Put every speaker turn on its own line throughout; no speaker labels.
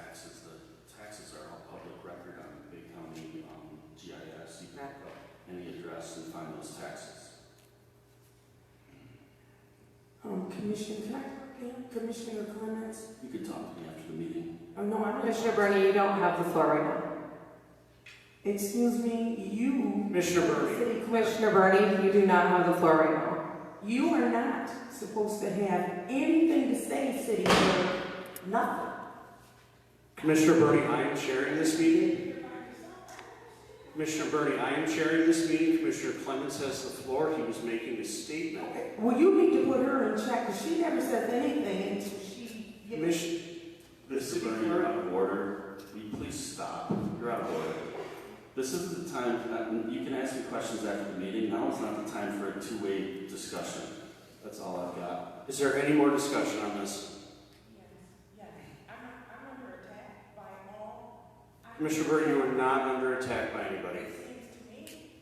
um, us to fund those taxes.
Um, Commissioner, can I, yeah, Commissioner comments?
You could talk to me after the meeting.
Oh, no, I don't.
Commissioner Bernie, you don't have the floor right now.
Excuse me, you,
Commissioner Bernie,
city commissioner,
Commissioner Bernie, you do not have the floor right now.
you are not supposed to have anything to say, city clerk, nothing.
Commissioner Bernie, I am chairing this meeting. Commissioner Bernie, I am chairing this meeting. Commissioner Clemens has the floor. He was making a statement.
Well, you need to put her in check, because she never says anything until she. gives-
Commissioner,
Mr. Bernie, you're out of order. Will you please stop? You're out of order. This isn't the time, uh, you can ask me questions after the meeting. Now is not the time for a two-way discussion. That's all I've got.
is there any more discussion on this? Commissioner Bernie, you are not under attack by anybody.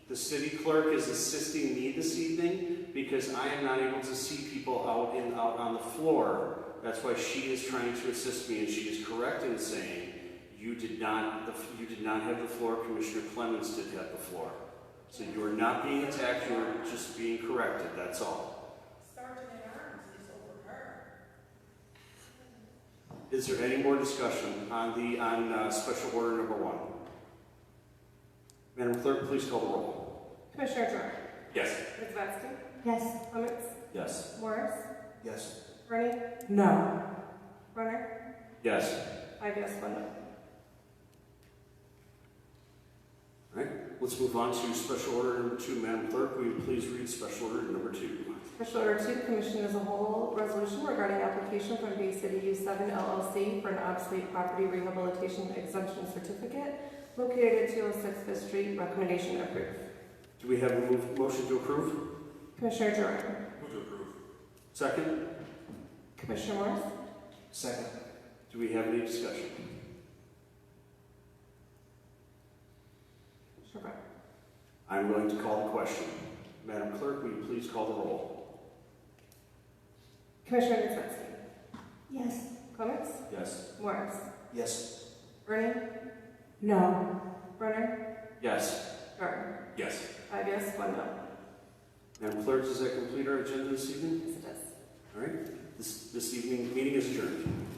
The city clerk is assisting me this evening because I am not able to see people out and out on the floor. That's why she is trying to assist me, and she is correct in saying you did not the, you did not have the floor. Commissioner Clemens did have the floor, so you are not being attacked. You are just being corrected. That's all. Is there any more discussion on the on uh, special order number one? Madam Clerk, please call the roll.
Commissioner Jordan?
Yes.
Ms. Vacy?
Yes.
Clements?
Yes.
Morris?
Yes.
Bernie?
No.
Runner?
Yes.
Five yes, one no.
Let's move on to special order number two. Madam Clerk, will you please read special order number two?
Special order two, commission as a whole, resolution regarding application from Bay City U seven LLC for an obsolete property rehabilitation exemption certificate located at two oh six Fifth Street, recommendation approved.
Do we have a move- motion to approve?
Commissioner Jordan?
Move to approve.
Second?
Commissioner Morris?
Second. Do we have any discussion?
Commissioner Brown?
I'm going to call the question. Madam Clerk, will you please call the roll?
Commissioner Nisbetsky?
Yes.
Clements?
Yes.
Morris?
Yes.
Bernie?
No.
Runner?
Yes.
Jordan?
Yes.
Five yes, one no.
Madam Clerk, does that complete our agenda this evening?
Yes, it is.
All right. This, this evening, meeting is adjourned.